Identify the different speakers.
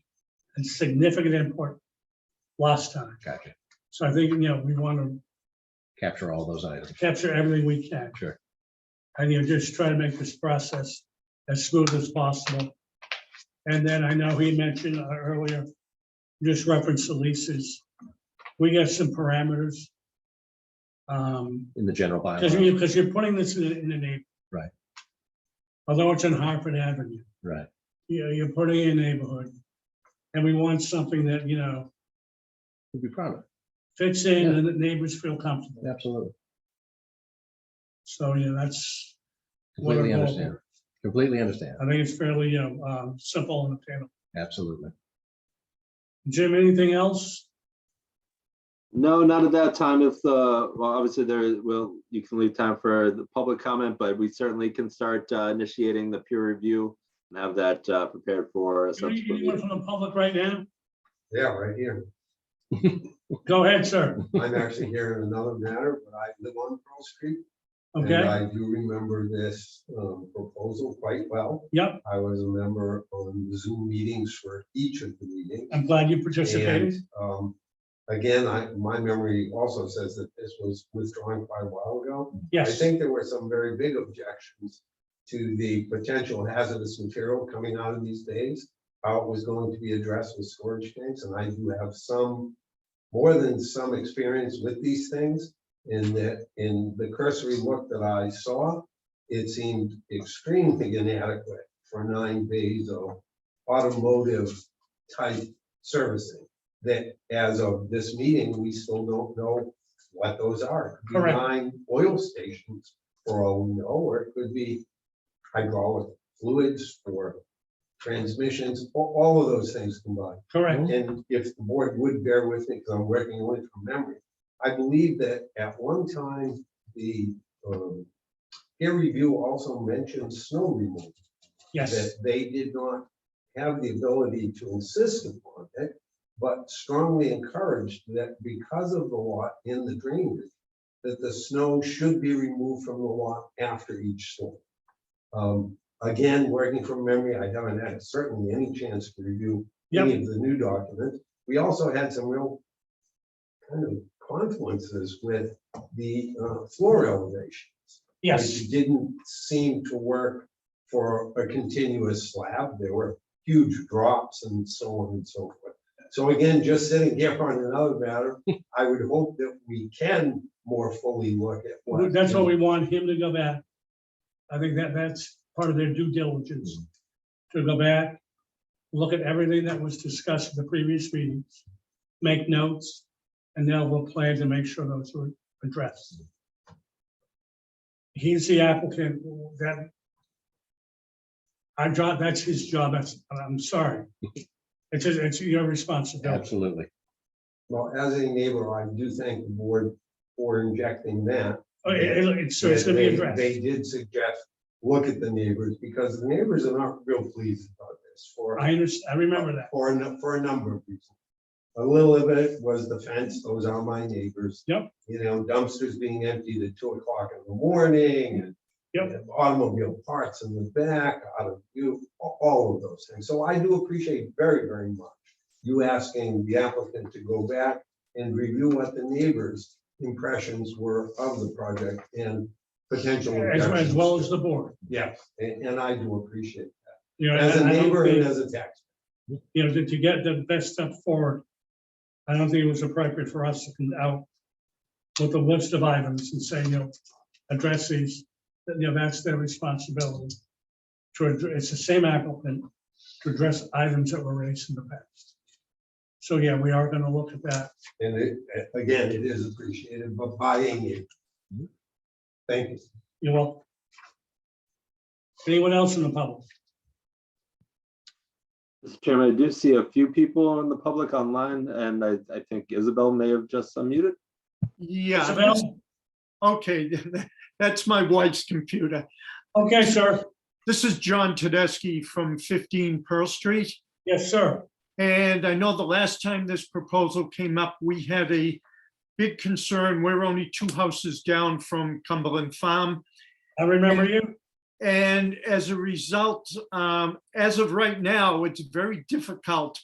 Speaker 1: and significant input last time.
Speaker 2: Gotcha.
Speaker 1: So I think, you know, we want to
Speaker 2: Capture all those items.
Speaker 1: capture everything we can.
Speaker 2: Sure.
Speaker 1: And you know, just try to make this process as smooth as possible. And then I know he mentioned uh, earlier, just reference the leases. We got some parameters. Um,
Speaker 2: in the general
Speaker 1: Because
Speaker 2: bylaw.
Speaker 1: you, because you're putting this in, in the neighborhood.
Speaker 2: Right.
Speaker 1: Although it's in Hartford Avenue,
Speaker 2: Right,
Speaker 1: you know, you're putting in a neighborhood. And we want something that, you know,
Speaker 2: we'd be proud of,
Speaker 1: fits in and the neighbors feel comfortable.
Speaker 2: it. absolutely.
Speaker 1: So, you know, that's, What
Speaker 2: Completely
Speaker 1: a goal.
Speaker 2: understand, completely understand,
Speaker 1: I think it's fairly, you know, um, simple and attainable.
Speaker 2: absolutely.
Speaker 1: Jim, anything else?
Speaker 3: No, not at that time. If uh well, obviously there will, you can leave time for the public comment, but we certainly can start uh, initiating the peer review and have that uh, prepared for a subsequent.
Speaker 1: Anyone
Speaker 3: meeting.
Speaker 1: from the public right now?
Speaker 4: Yeah, right here.
Speaker 1: Go ahead, sir.
Speaker 4: I'm actually here in another matter, but I live on Pearl Street. And
Speaker 1: Okay,
Speaker 4: I do remember this um, proposal quite well.
Speaker 1: Yep.
Speaker 4: I was a member on Zoom meetings for each of the meetings.
Speaker 1: I'm glad you participated.
Speaker 4: And, um, Again, I, my memory also says that this was withdrawn quite a while ago. I
Speaker 1: Yes,
Speaker 4: think there were some very big objections to the potential hazardous material coming out of these things, how it was going to be addressed with storage tanks, and I do have some, more than some experience with these things, in that, in the cursory look that I saw, it seemed extremely inadequate for nine days of automotive type servicing. That as of this meeting, we still don't know what those are. It could be
Speaker 1: Correct.
Speaker 4: Nine oil stations, for all we know, or it could be hydraulic fluids for transmissions, a- all of those things combined.
Speaker 1: correct.
Speaker 4: And if the board would bear with me, because I'm working only from memory, I believe that at one time, the um, peer review also mentioned snow removal.
Speaker 1: Yes,
Speaker 4: That they did not have the ability to insist upon it, but strongly encouraged that because of the lot in the drainage, that the snow should be removed from the lot after each storm. Um, Again, working from memory, I haven't had certainly any chance to review any
Speaker 1: yep,
Speaker 4: of the new documents. We also had some real kind of confluences with the uh, floor elevations.
Speaker 1: yes,
Speaker 4: It Didn't seem to work for a continuous slab. There were huge drops and so on and so forth. So again, just sitting here on another matter, I would hope that we can more fully look at. what-
Speaker 1: that's what we want him to go back. I think that, that's part of their due diligence, to go back, look at everything that was discussed in the previous meetings, make notes, and then we'll plan to make sure those were addressed. He's the applicant that I job, that's his job, that's, I'm sorry. It's, his- it's your responsibility.
Speaker 2: Absolutely,
Speaker 4: Well, as a neighbor, I do thank the board for injecting that.
Speaker 1: Oh, it- it- it's- so it's
Speaker 4: that
Speaker 1: gonna be
Speaker 4: they-
Speaker 1: addressed.
Speaker 4: They did suggest, look at the neighbors, because the neighbors are not real pleased about this for.
Speaker 1: I understand, I remember that.
Speaker 4: For, a nu- for a number of reasons. A little of it was the fence, those are my neighbors.
Speaker 1: Yep.
Speaker 4: You know, dumpsters being emptied at two o'clock in the morning and.
Speaker 1: Yep.
Speaker 4: and Automobile parts in the back, out of view, a- all of those things. So I do appreciate very, very much you asking the applicant to go back and review what the neighbors' impressions were of the project and potential.
Speaker 1: As, as well as the board.
Speaker 4: Yeah, and, and I do appreciate, it.
Speaker 1: You know,
Speaker 4: as a
Speaker 1: and I don't
Speaker 4: neighbor
Speaker 1: think-
Speaker 4: and as a taxpayer.
Speaker 1: you know, to, to get the best step forward. I don't think it was appropriate for us to come out with a list of items and say, you know, address these, that, you know, that's their responsibility. To, addre- it's the same applicant to address items that were raised in the past. So, yeah, we are gonna look at that.
Speaker 4: And it, again, it is appreciated, but buying it. Thank you.
Speaker 1: You will. Anyone else in the public?
Speaker 3: Mr. Chairman, I do see a few people in the public online, and I, I think Isabel may have just unmuted.
Speaker 5: Yeah, that's-
Speaker 1: Isabel?
Speaker 5: okay, that's my wife's computer.
Speaker 1: Okay, sir.
Speaker 5: This is John Tedeschi from 15 Pearl Street.
Speaker 1: Yes, sir.
Speaker 5: And I know the last time this proposal came up, we had a big concern. We're only two houses down from Cumberland Farm.
Speaker 1: I remember you.
Speaker 5: And as a result, um, as of right now, it's very difficult